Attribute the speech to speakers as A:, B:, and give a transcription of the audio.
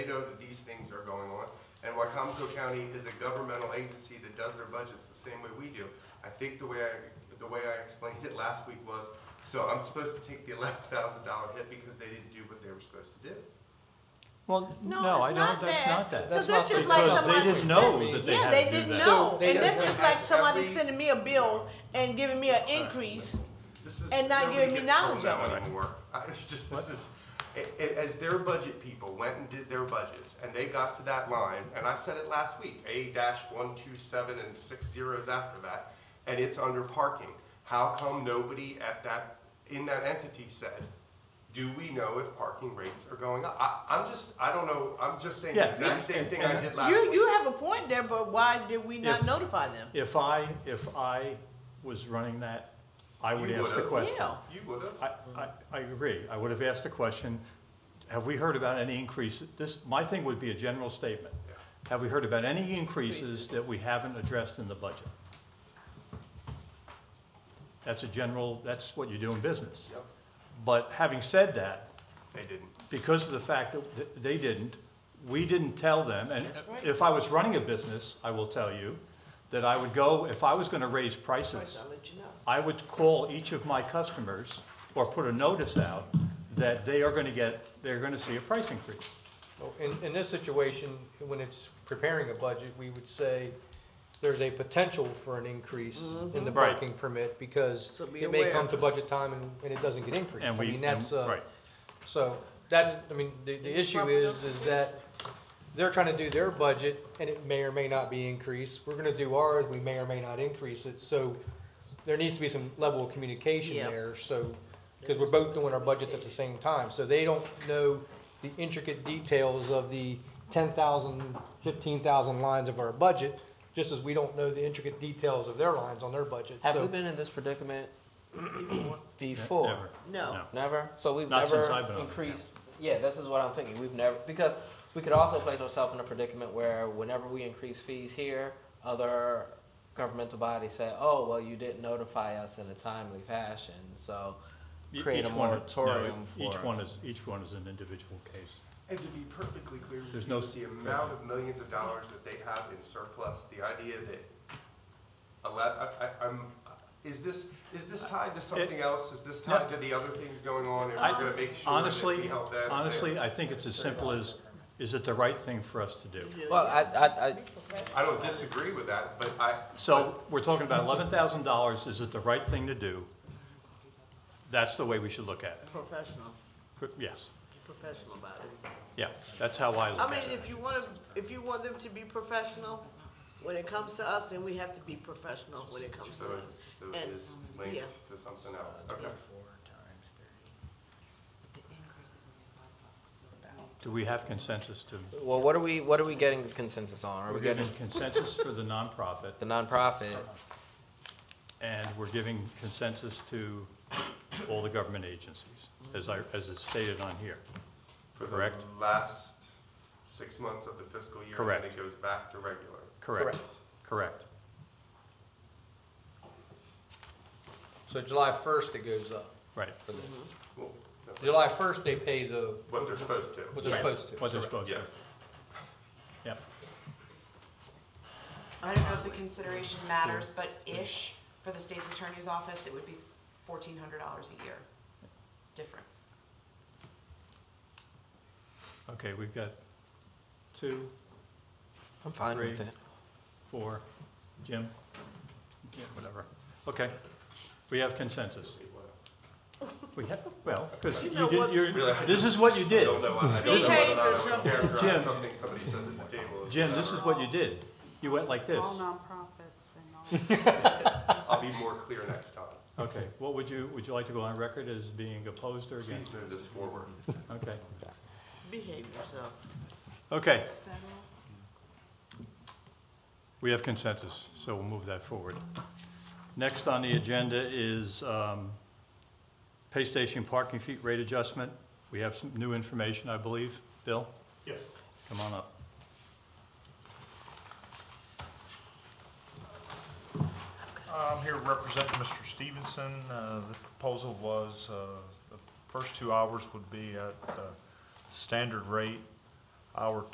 A: know that these things are going on. And Wycomico County is a governmental agency that does their budgets the same way we do. I think the way I, the way I explained it last week was, so I'm supposed to take the eleven thousand dollar hit because they didn't do what they were supposed to do.
B: Well,
C: No,
B: no,
C: it's
B: I don't,
C: not
B: that's
C: that.
B: not that.
C: Because
D: That's
C: that's
D: not
C: just like
B: because
C: somebody.
B: they didn't know that they had to do
C: Yeah, they didn't
B: that.
C: know,
D: So they
C: and that's
D: just
C: just
A: have
C: like somebody
A: every-
C: sending me a bill and giving me an increase.
A: This is-
C: And not
A: nobody
C: giving me
A: gets told
C: knowledge
A: that
C: of it.
A: anymore. I, it's just, this is, a- a- as their budget people went and did their budgets, and they got to that line, and I said it last week, A dash one two seven and six zeros after that, and it's under parking. How come nobody at that, in that entity said, do we know if parking rates are going up? I, I'm just, I don't know, I'm just saying the
B: Yeah,
A: exact same thing I
B: and-
A: did last
C: You,
A: week.
C: you have a point there, but why did we not
B: If-
C: notify them?
B: If I, if I was running that, I would
A: You
B: ask the
A: would've.
B: question.
C: Yeah.
A: You would've.
B: I, I, I agree. I would have asked the question, have we heard about any increase? This, my thing would be a general statement.
A: Yeah.
B: Have we heard about any increases
C: Increases.
B: that we haven't addressed in the budget? That's a general, that's what you do in business.
A: Yep,
B: But having said that,
A: they didn't.
B: because of the fact that th- they didn't, we didn't tell them, and
C: That's right.
B: if I was running a business, I will tell you, that I would go, if I was gonna raise
C: First,
B: prices,
C: I'll let you know.
B: I would call each of my customers or put a notice out that they are gonna get, they're gonna see a price increase.
D: Well, In, in this situation, when it's preparing a budget, we would say there's a potential for an increase in the
B: Mm-hmm. Right.
D: parking permit because
C: So be
D: it may
C: aware.
D: come to budget time and, and it doesn't get increased.
B: And
D: I
B: we,
D: mean, that's,
B: and-
D: uh,
B: right.
D: So that's, I mean, the, the issue is, is that they're trying to do their budget and it may or may not be increased. We're gonna do ours, we may or may not increase it, so there needs to be some level of communication
C: Yeah.
D: there, so, because we're both doing our budgets at the same time, so they don't know the intricate details of the 10,000, 15,000 lines of our budget, just as we don't know the intricate details of their lines on their budget,
E: Have
D: so.
E: we been in this predicament before?
B: Never.
C: No.
E: Never? So we've
B: Not since
E: never
B: I've been on it,
E: increased. Yeah, this is what I'm thinking. We've never because we could also place ourselves in a predicament where whenever we increase fees here, other governmental bodies say, "Oh, well, you didn't notify us in a timely fashion." So
B: E-
E: create
B: each
E: a
B: one- no,
E: moratorium
B: Each
E: for-
B: one is, each one is an individual case.
A: And to be perfectly clear, with
B: There's
A: you,
B: no-
A: the amount of millions of dollars that they have in surplus, the idea that ele- I, I, I'm, is this, is this tied to something else? Is this tied to the other things going on and
B: I-
A: we're gonna make sure that we
B: Honestly,
A: help them?
B: honestly, I think it's as simple as, is it the right thing for us to do?
E: well, I, I, I
A: I don't disagree with that, but I.
B: So we're talking about eleven thousand dollars, is it the right thing to do? That's the way we should look at
C: Professional,
B: it. Yes,
C: professional about it.
B: yeah, that's how I
C: I
B: look at
C: mean,
B: it.
C: if you want, if you want them to be professional, when it comes to us, then we have to be professional when it comes to
A: So it's,
C: us.
A: so it
C: And-
A: is
C: yeah.
A: linked to something else, okay.
B: Do we have consensus to,
E: well, what are we what are we getting consensus on? Are
B: we're
E: we
B: getting
E: getting
B: consensus for the nonprofit,
E: the nonprofit?
B: and we're giving consensus to all the government agencies, as I, as it's stated on here.
A: For the
B: Correct.
A: last six months of the fiscal year, and
B: Correct.
A: then it goes back to regular.
B: Correct,
D: Correct.
B: correct.
D: So July first it goes up
B: Right,
D: for them.
A: Well, no,
D: July first, they pay the,
A: What they're supposed to.
D: what they're
C: Yes.
D: supposed to.
B: what they're supposed to.
A: Yeah.
B: Yep,
F: I don't know if the consideration matters, but ish, for the state's attorney's office, it would be fourteen hundred dollars a year difference.
B: okay, we've got two,
E: I'm fine with
B: Three.
E: it.
B: four, Jim? Yeah, whatever, okay, we have consensus. We have, well, because you
C: know
B: did,
C: what-
B: you're, this is what you did.
A: I don't know, I don't know
C: Behave
A: whether or not I
C: yourself.
A: would characterize
B: Jim.
A: something somebody says at the table. as
B: Jim, this is
A: whatever.
B: what you did, you went like this.
G: All nonprofits and
A: I'll be more clear next time.
B: Okay, what would you, would you like to go on record as being opposed or
A: Please
B: against?
A: move this forward.
B: Okay,
C: Behave yourself.
B: okay,
G: all federal.
B: we have consensus, so we'll move that forward. Next on the agenda is um, pay station parking fee rate adjustment. We have some new information, I believe. Bill,
A: Yes.
B: come on up.
H: I'm here representing Mr. Stevenson. Uh, The proposal was, uh, the first two hours would be at uh, standard rate. our